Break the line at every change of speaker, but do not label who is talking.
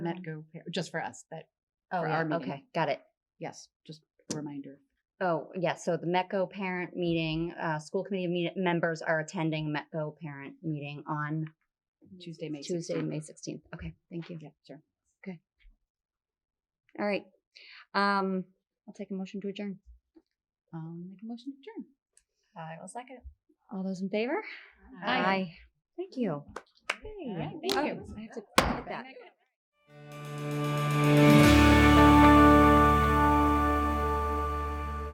Medco, pa- just for us, that,
Oh,
for our
yeah,
meeting.
okay, got it.
yes, just a reminder.
Oh, yeah, so the METCO parent meeting, uh, school committee me- members are attending METCO parent meeting on
Mm-hmm. Tuesday, May
Tuesday,
16th.
May sixteenth. Okay, thank you.
Yeah, sure.
All right. Um, I'll take a motion to adjourn.
Um, make a motion to adjourn. I will second.
All those in favor?
Aye.
Thank you.
All right,
Hey.
thank
Oh,
you.
I have to edit that.